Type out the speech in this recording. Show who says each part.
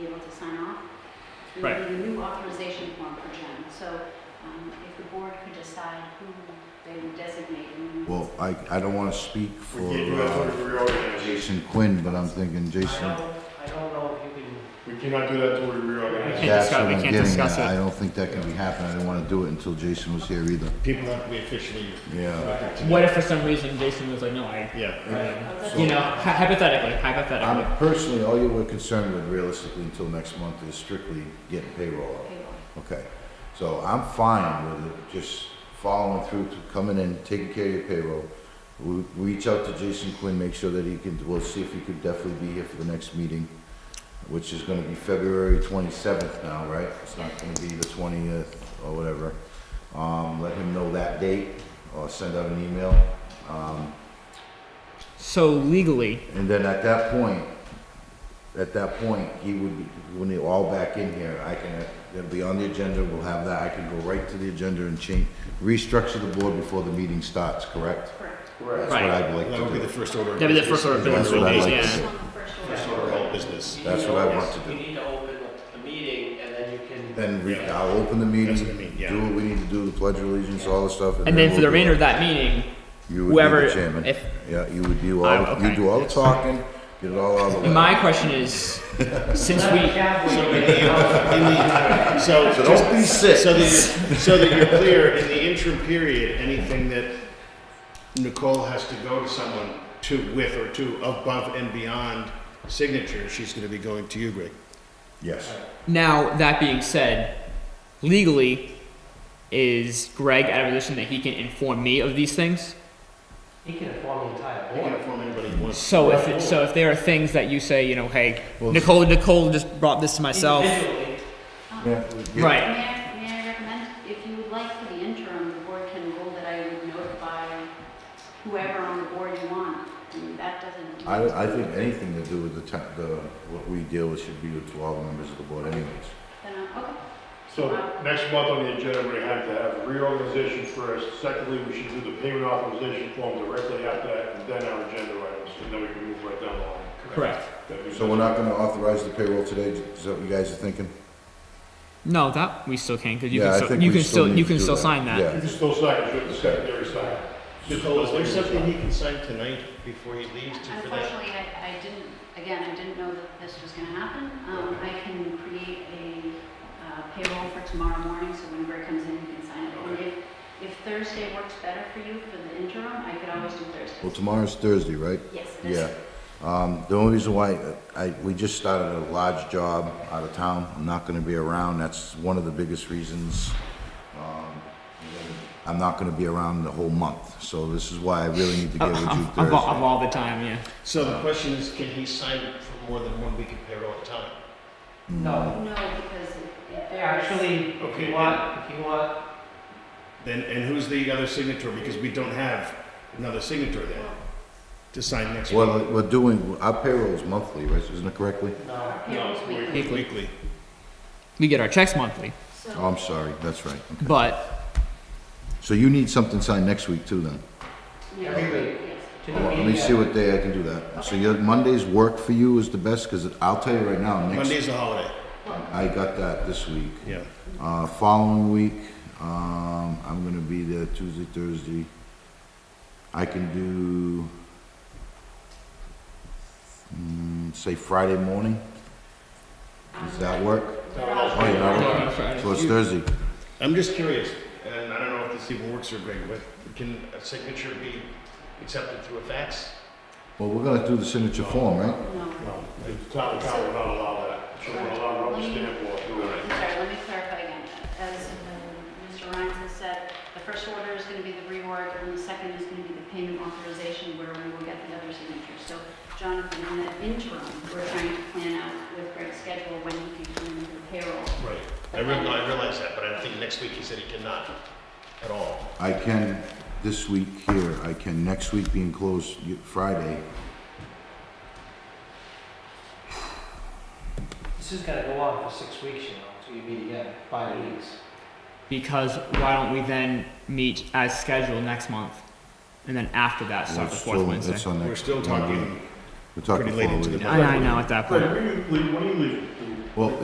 Speaker 1: to sign off. And
Speaker 2: Right.
Speaker 1: we need a new authorization form for Jen. So um, if the board could decide who they would designate. and-
Speaker 3: Well, I, I don't want to speak
Speaker 4: We
Speaker 3: for
Speaker 4: can't do that
Speaker 3: uh,
Speaker 4: until we reorganize.
Speaker 3: Jason Quinn, but I'm thinking
Speaker 5: I
Speaker 3: Jason,
Speaker 5: don't, I don't know if you can,
Speaker 4: We cannot do that until we
Speaker 2: We
Speaker 4: reorganize.
Speaker 2: can't
Speaker 3: that's
Speaker 2: discuss-
Speaker 3: what
Speaker 2: we
Speaker 3: I'm
Speaker 2: can't
Speaker 3: getting
Speaker 2: discuss
Speaker 3: at. uh, I
Speaker 2: it.
Speaker 3: don't think that can be happening. I didn't want to do it until Jason was here either.
Speaker 6: People have to be officially.
Speaker 3: Yeah.
Speaker 2: What if for some reason Jason was like, no, I,
Speaker 6: Yeah.
Speaker 2: I you know, hy- hypothetically, hypothetically.
Speaker 3: I'm personally, all you were concerned with realistically until next month is strictly getting payroll out.
Speaker 1: Okay, well,
Speaker 3: Okay, so I'm fine with it, just following through to coming in, taking care of your payroll. We, we reach out to Jason Quinn, make sure that he can, we'll see if he could definitely be here for the next meeting, which is gonna be February twenty-seventh now, right? It's not gonna be the twentieth or whatever. Um, let him know that date or send out an email. Um,
Speaker 2: So legally,
Speaker 3: and then at that point, at that point, he would be, when they're all back in here, I can, it'll be on the agenda, we'll have that, I can go right to the agenda and change, restructure the board before the meeting starts, correct?
Speaker 1: Correct.
Speaker 3: That's
Speaker 4: Correct.
Speaker 3: what
Speaker 2: Right.
Speaker 3: I'd like
Speaker 6: That would be
Speaker 3: to
Speaker 6: the
Speaker 3: do.
Speaker 6: first order. of
Speaker 2: That'd be the
Speaker 6: business.
Speaker 2: first order of
Speaker 3: That's what I'd like
Speaker 2: Yeah.
Speaker 3: to do.
Speaker 1: On the first order.
Speaker 6: First order of all business.
Speaker 5: you
Speaker 3: That's
Speaker 5: need to
Speaker 3: what I
Speaker 5: open-
Speaker 3: want to do.
Speaker 5: You need to open the meeting and then you can.
Speaker 3: Then re, I'll open the meeting,
Speaker 6: That's what I mean, yeah.
Speaker 3: do what we need to do, the pledge of allegiance, all the stuff.
Speaker 2: and then for the
Speaker 3: we'll do
Speaker 2: remainder
Speaker 3: it.
Speaker 2: of that meeting,
Speaker 3: You would be
Speaker 2: whoever,
Speaker 3: the chairman.
Speaker 2: if
Speaker 3: Yeah, you would do
Speaker 2: I-
Speaker 3: all, you
Speaker 2: okay.
Speaker 3: do all the talking, get it all out of the way.
Speaker 2: my question is, since
Speaker 5: Let
Speaker 2: we,
Speaker 5: Chad wait.
Speaker 6: So in the- in the- So,
Speaker 3: So
Speaker 6: just-
Speaker 3: don't be sick.
Speaker 6: so that, you're- so that you're clear, in the interim period, anything that Nicole has to go to someone to with or to above and beyond signature, she's gonna be going to you, Greg.
Speaker 3: Yes,
Speaker 2: now that being said, legally, is Greg at a position that he can inform me of these things?
Speaker 5: He can inform the entire
Speaker 6: I don't wanna
Speaker 5: board.
Speaker 6: inform anybody who wants.
Speaker 2: So if it, so if there are things that you say, you know, hey,
Speaker 3: Well,
Speaker 2: Nicole, Nicole just brought this to myself,
Speaker 5: Individually,
Speaker 3: yeah. we-
Speaker 1: Um, May
Speaker 2: right?
Speaker 1: I, may I recommend, if you would like for the interim, the board can rule that I would notify whoever on the board you want. I mean, that doesn't.
Speaker 3: I, I think anything to do with the town, the, what we deal with should be to all the members of the board anyways.
Speaker 1: Then, uh, okay. Uh,
Speaker 4: So next month on the agenda, we have to have reorganization first. Secondly, we should do the payment authorization form directly after that, and then our agenda items, and then we can move right down the line.
Speaker 2: Correct.
Speaker 4: That'd be-
Speaker 3: So we're not gonna authorize the payroll today, is that what you guys are thinking?
Speaker 2: No, that we still can because you
Speaker 3: Yeah, I
Speaker 2: can still
Speaker 3: think
Speaker 2: you
Speaker 3: we
Speaker 2: can still,
Speaker 3: need
Speaker 2: you
Speaker 3: to
Speaker 2: can
Speaker 3: do
Speaker 2: still sign that.
Speaker 4: You
Speaker 3: Yeah,
Speaker 4: can still sign, it, it's the secondary sign.
Speaker 6: Nicole, is there something he can sign tonight before he leaves to, for that?
Speaker 1: Unfortunately, I, I didn't, again, I didn't know that this was gonna happen. Um, I can create a uh, payroll for tomorrow morning, so when Greg comes in, he can sign it. And if, if Thursday works better for you for the interim, I could always do
Speaker 3: well,
Speaker 1: Thursday.
Speaker 3: tomorrow's Thursday, right?
Speaker 1: Yes, it is.
Speaker 3: Yeah. Um, the only reason why, I, we just started a large job out of town, I'm not gonna be around, that's one of the biggest reasons. Um, I'm not gonna be around the whole month, so this is why I really need to get
Speaker 2: Of,
Speaker 3: with you
Speaker 2: of, of all, of
Speaker 3: Thursday.
Speaker 2: all the time, yeah.
Speaker 6: So the question is, can he sign for more than one week of payroll at a time?
Speaker 5: no.
Speaker 1: No, because it- it varies.
Speaker 5: Actually, if
Speaker 6: Okay.
Speaker 5: you want, if you want,
Speaker 6: Then, and who's the other signator, because we don't have another signator there to sign next week.
Speaker 3: Well, we're doing, our payroll's monthly, right, isn't it correctly?
Speaker 5: no.
Speaker 1: Payroll's
Speaker 6: No,
Speaker 1: weekly.
Speaker 2: Weekly.
Speaker 6: Weekly.
Speaker 2: We get our checks monthly,
Speaker 3: Oh,
Speaker 1: So,
Speaker 3: I'm sorry, that's right.
Speaker 2: but
Speaker 3: So you need something signed next week too, then? Um,
Speaker 1: yeah,
Speaker 5: Every week.
Speaker 1: yes.
Speaker 5: to the
Speaker 3: Well, let me
Speaker 5: meeting
Speaker 3: see
Speaker 5: at-
Speaker 3: what day I can do that. So your Mondays work for you is the best, because I'll tell you right now, next,
Speaker 6: Monday's a holiday.
Speaker 3: I got that this week.
Speaker 6: Yeah.
Speaker 3: Uh, following week, um, I'm gonna be there Tuesday, Thursday. I can do, mm, say Friday morning? Does that work? Oh, you're not working. So it's Thursday.
Speaker 6: I'm just curious, and I don't know if this even works or Greg, but can a signature be accepted through a fax?
Speaker 3: Well, we're gonna do the signature form, right?
Speaker 1: No.
Speaker 4: No, the town account will not allow that. So we're allowed rubber stamp or do it.
Speaker 1: I'm sorry, let me clarify again. As um, Mr. Rhines has said, the first order is going to be the reorg, and the second is going to be the payment authorization, where we will get the other signatures. So Jonathan, in the interim, we're trying to plan out with Greg's schedule when he can come in for the payroll.
Speaker 6: Right. I realize, I realize that, but I think next week he said he cannot at all.
Speaker 3: I can this week here, I can next week being closed y- Friday.
Speaker 5: This is gonna go on for six weeks, you know, until you meet again, five weeks.
Speaker 2: because why don't we then meet as scheduled next month, and then after that
Speaker 3: We're
Speaker 2: start the fourth
Speaker 3: still-
Speaker 2: Wednesday.
Speaker 3: that's our
Speaker 6: We're
Speaker 3: next
Speaker 6: still
Speaker 3: Monday.
Speaker 6: talking
Speaker 3: We're talking
Speaker 6: pretty late
Speaker 3: four
Speaker 6: into the
Speaker 3: weeks.
Speaker 2: I, I know at that point.
Speaker 4: Greg, when you leave, when you leave?
Speaker 3: Well,